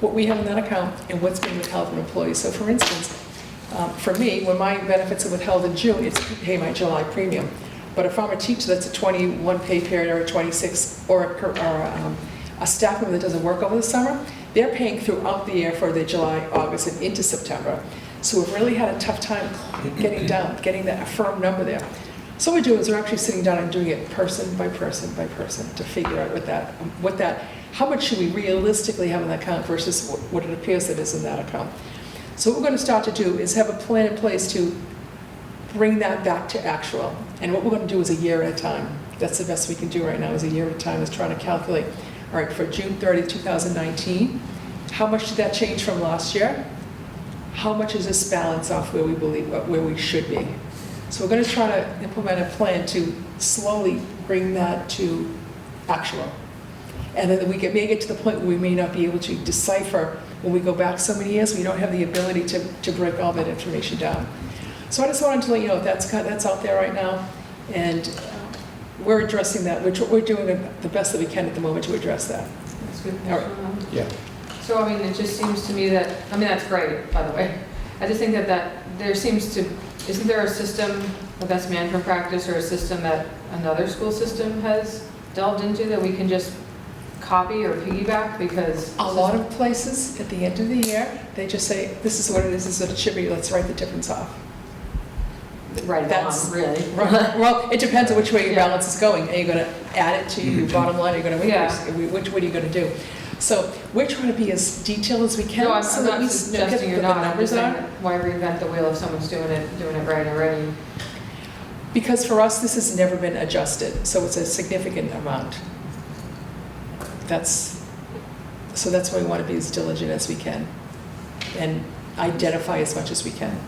what we have in that account and what's being withheld from employees. So for instance, um, for me, when my benefits are withheld in June, it's to pay my July premium. But if I'm a teacher that's a 21 pay period or a 26, or a per- or a um, a staff member that doesn't work over the summer, they're paying throughout the year for their July, August, and into September. So we've really had a tough time getting down, getting that firm number there. So what we do is we're actually sitting down and doing it person by person by person to figure out what that, what that, how much should we realistically have in that account versus wh- what it appears that is in that account. So what we're going to start to do is have a plan in place to bring that back to actual. And what we're going to do is a year at a time. That's the best we can do right now, is a year at a time, is trying to calculate, all right, for June 30, 2019, how much did that change from last year? How much is this balance off where we believe, where we should be? So we're going to try to implement a plan to slowly bring that to actual. And then we get- may get to the point where we may not be able to decipher, when we go back so many years, we don't have the ability to, to break all that information down. So I just wanted to let you know, that's, kind- that's out there right now, and uh, we're addressing that, we're, tr- we're doing the- the best that we can at the moment to address that. That's good. All right. Um, Yeah. So, I mean, it just seems to me that, I mean, that's great, by the way. I just think that that, there seems to, isn't there a system, a best management practice or a system that another school system has delved into that we can just copy or piggyback because? A lot of places, at the end of the year, they just say, this is what it is, this is what it should be, let's write the difference off. Right, that's- that's really. Right, well, it depends on which way your Yeah. balance is going. Are you gonna add it to your bottom line, are you gonna Yeah. increase, it? which, what are you gonna do? So we're trying to be as detailed as we can, No, I'm so I'm that we not s- know what suggesting the you're not, I'm numbers just saying, are. that why reinvent the wheel if someone's doing it, doing it right already? Because for us, this has never been adjusted, so it's a significant amount. That's, so that's why we wanna be as diligent as we can and identify as much as we can.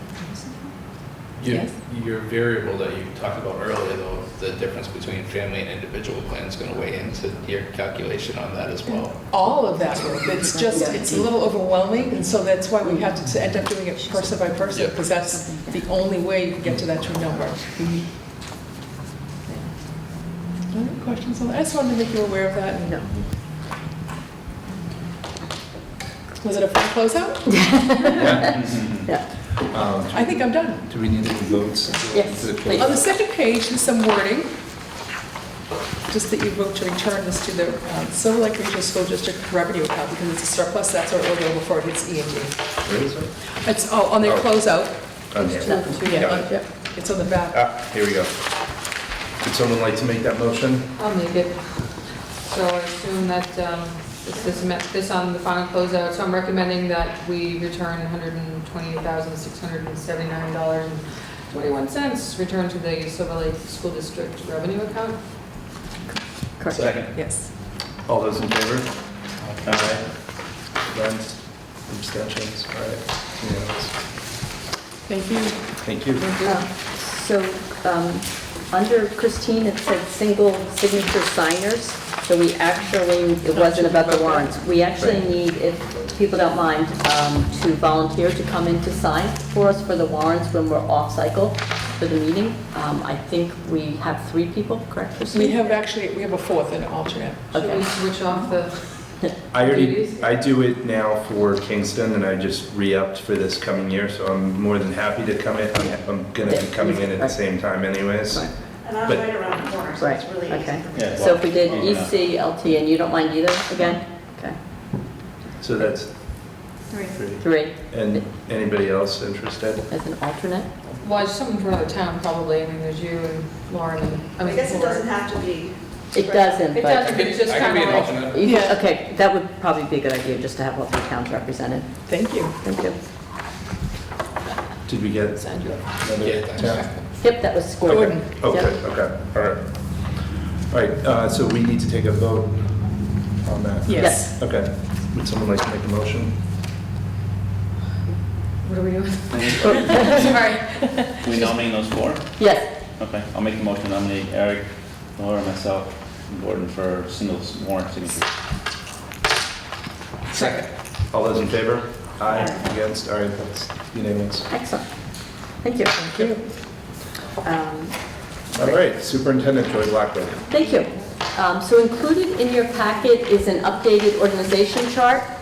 Your, Yes. your variable that you talked about earlier, though, the difference between family and individual plan is going to weigh into your calculation on that as well. all of that work. It's just, it's a little overwhelming, and so that's why we have to end up doing it person by person, Yeah. because that's the only way you can get to that true number. Any questions on that? I just wanted to make you aware of that. No. Was it a fun closeout? Um, I think I'm done. Do we need any votes? Yes, To the- please. On the second page, there's some wording, just that you vote to return this to the um, Silver Lake Regional School District revenue account, because it's a surplus, that's what we're going before it hits E and D. Where is it? It's, oh, on their Oh. closeout. On there. Yeah, Got it. yeah, it's on the back. Ah, here we go. Would someone like to make that motion? I'll make it. So I assume that um, this is, met- this on the final closeout, so I'm recommending that we return $128,679.21 return to the Silver Lake School District revenue account. Correct. Second. Yes. All those in favor? Aye. Against? Abstentions? All right. Unanimous. Thank you. Thank you. Um, So, um, under Christine, it said single signature signers, so we actually, it wasn't about the warrants. We actually Right. need, if people don't mind, um, to volunteer to come in to sign for us for the warrants when we're off cycle for the meeting. Um, I think we have three people, correct, Christine? We have actually, we have a fourth and an alternate. Should we Okay. switch off the, I Duties? already, I do it now for Kingston, and I just re-upped for this coming year, so I'm more than happy to come in. I'm- I'm gonna be coming in at the same time anyways. Right. And I'm But- right around the corner, so Right, it's really easy. okay. for me. So if we did E EC, LT, and you don't mind either, again? Okay, So that's Three. three. three And anybody else interested? as an alternate? well, it's someone from another town probably, I mean, there's you and Lauren and, I I mean. guess it Lauren. doesn't have to be. It doesn't, It but- doesn't, but it's just I can kind be an of like, e- alternate. You- Yeah. Okay, that would probably be a good idea, just to have all three towns represented. Thank you. Thank you. Did we get send you. another? Yeah, thanks. town? Yep, that was scored. Gordon. Oh, Yeah. good, okay, all right. All right, uh, so we need to take a vote on that. Yes. Okay, would someone like to make a motion? what are we doing? Sorry. We nominate those four? Yes, Okay, I'll make a motion to nominate Eric, Laura, myself, and Gordon for single warrant signature. Second. All those in favor? Aye, against, all right, that's unanimous. excellent. Thank you. Um, Thank you. All right, Superintendent Joy Blackwood. Thank you. Um, So included in your packet is an updated organization chart.